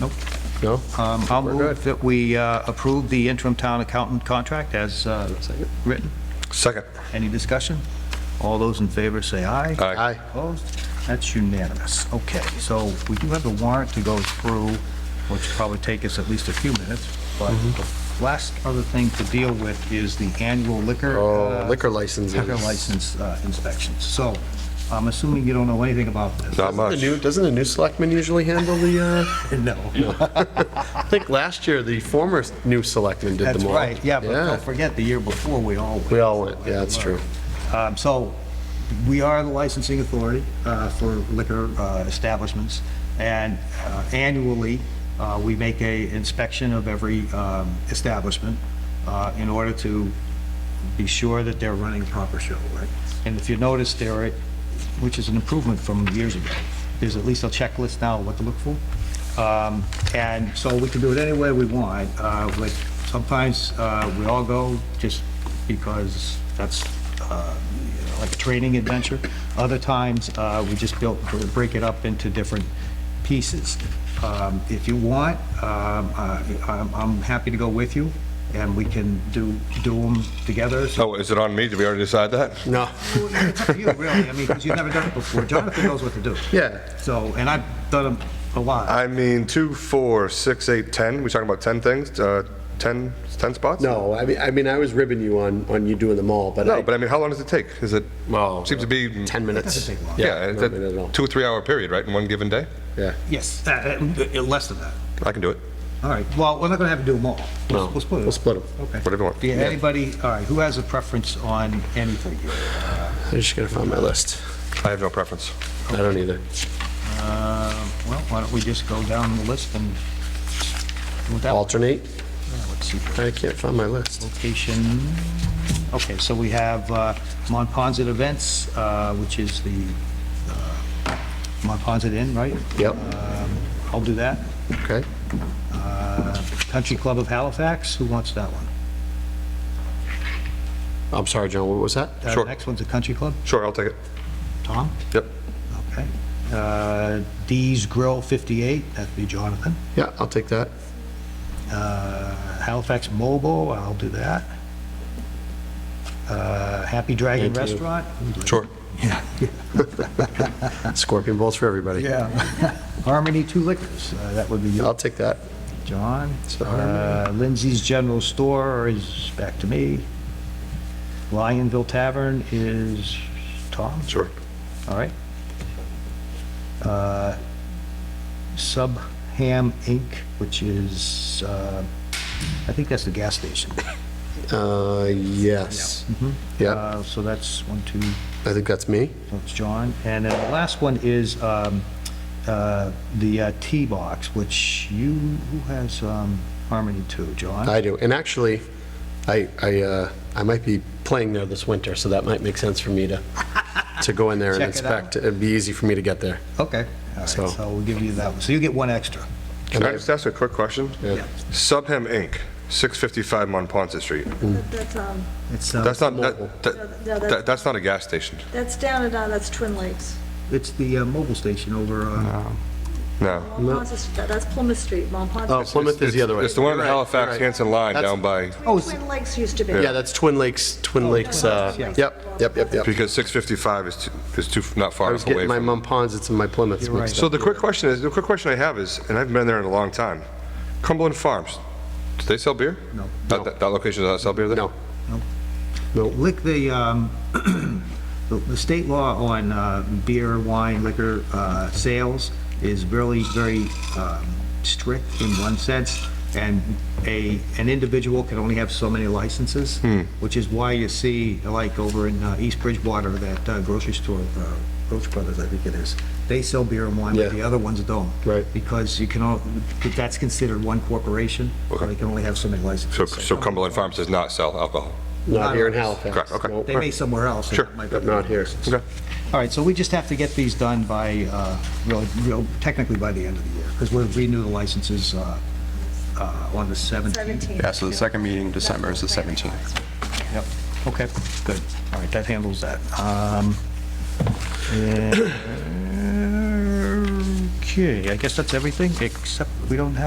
Nope. No? Um, I'll We're good. move that we uh, approve the interim town accountant contract as uh, written. Second. Any discussion? All those in favor say aye. Aye. Opposed? That's unanimous. Okay, so we do have the warrant to go through, which will probably take us at least a few minutes, but Mm-hmm. the last other thing to deal with is the annual liquor. Oh, uh, liquor licenses. Liquor license uh, inspections. So I'm assuming you don't know anything about this. Not The much. new, doesn't the new selectman usually handle the, uh, No. I think last year, the former new selectman did That's them all. right, yeah, but don't forget, the year before, we all went. We all went, yeah, that's true. Um, So, we are the licensing authority uh, for liquor uh, establishments, and uh, annually, uh, we make a inspection of every um, establishment uh, in order to be sure that they're running proper show, right? And if you notice there, which is an improvement from years ago, there's at least a checklist now of what to look for. Um, And so we can do it any way we want, uh, but sometimes uh, we all go just because that's uh, you know, like a training adventure. Other times, uh, we just build, break it up into different pieces. Um, If you want, um, uh, I'm I'm happy to go with you, and we can do, do them together. So Oh, is it on me? Did we already decide that? No, It's up to you, really, I mean, because you've never done it before. Jonathan knows what to do. Yeah. So, and I've done them a lot. I mean, two, four, six, eight, 10. We talking about 10 things? Uh, 10, 10 spots? no, I mean, I mean, I was ribbing you on, on you doing them all, but No, I, but I mean, how long does it take? Is it, well. uh, seems to be. 10 minutes. doesn't take long. Yeah, it's no minute at a all. two or three hour period, right, in one given day? Yeah. Yes, uh, uh, less than that. I can do it, All right, well, we're not going to have to do them all. We'll- No, We'll split it. we'll split 'em. Okay. whatever you want. Yeah, anybody, all right, who has a preference on anything? I'm just gonna find my list. I have no preference. I don't either. Uh, Well, why don't we just go down the list and, without, Alternate? let's see. I can't find my list. location. Okay, so we have uh, Monpont Events, uh, which is the uh, Monpont Inn, right? Yep. Um, I'll do that. Okay. Uh, Country Club of Halifax, who wants that one? I'm sorry, John, what was that? Uh, Sure. Next one's a country club, Sure, I'll take it. Tom? Yep. Okay. Uh, Dee's Grill 58, that'd be Jonathan. Yeah, I'll take that. Uh, Halifax Mobile, I'll do that. Uh, Happy Dragon Thank you. Restaurant? Sure. Scorpion bowls for everybody. Yeah. Harmony Two Liquors, uh, that would be you. I'll take that. John. So Uh, Lindsay's General Store is back to me. Lionville Tavern is Tom, Sure. all right. Uh, Sub Ham Inc., which is, uh, I think that's the gas station. Uh, yes. Yeah, Uh, So that's one, two, I think that's me. that's John. And then the last one is um, uh, the uh, Tea Box, which you, who has um, Harmony Two, John? I do. And actually, I, I, uh, I might be playing there this winter, so that might make sense for me to, to go in there and Check it out. inspect. It'd be easy for me to get there. Okay, all right, So- so we'll give you that one. So you get one extra. Can I just ask a quick question? Yeah. Subham Inc., 655 Monpont Street. Mm. But That's, um, It's, uh, That's not, that, that- No, that's- that- that's not a gas station. that's down and, uh, that's Twin Lakes. it's the uh, mobile station over, uh, No. Monpont is- That's Plymouth Street, Monpont. Oh, Plymouth is the other way. It's the one on the You're right, Halifax you're right. Hanson line That's- down by, Oh, it's- Twin Lakes used to be. Yeah, that's Twin Lakes, Oh, Twin Lakes, uh, yeah. yep, yep, yep, yep. because 655 is too, is too, not I far was enough getting away my from. mum ponds, it's in my Plymouth right. mixed So up. the quick question is, the quick question I have is, and I've been there in a long time, Cumberland Farms, do they sell beer? No. That, that- that location does not sell beer there? No, lick the, um, the- the state law on uh, beer, wine, liquor uh, sales is really very um, strict in one sense, and a, an individual can only have so many licenses, Hmm. which is why you see, like over in uh, East Bridgewater, that uh, grocery store, uh, Roach Brothers, I think it is, they sell beer and wine, but Yeah. the other ones don't. Right. Because you can, all- that's considered one corporation, so they can only have so many licenses. So, so Cumberland Farms does not sell alcohol? not here in Halifax. Correct, okay. Nope. They may somewhere else. and Sure, it might be- But not here. Okay. All right, so we just have to get these done by, uh, real- real- technically by the end of the year, because we'll renew the licenses uh, uh, on the 17th. 17. Yeah, so the second meeting in December is the 17th. Yep, okay, good. All right, that handles that. Um, and- Okay, I guess that's everything, except we don't have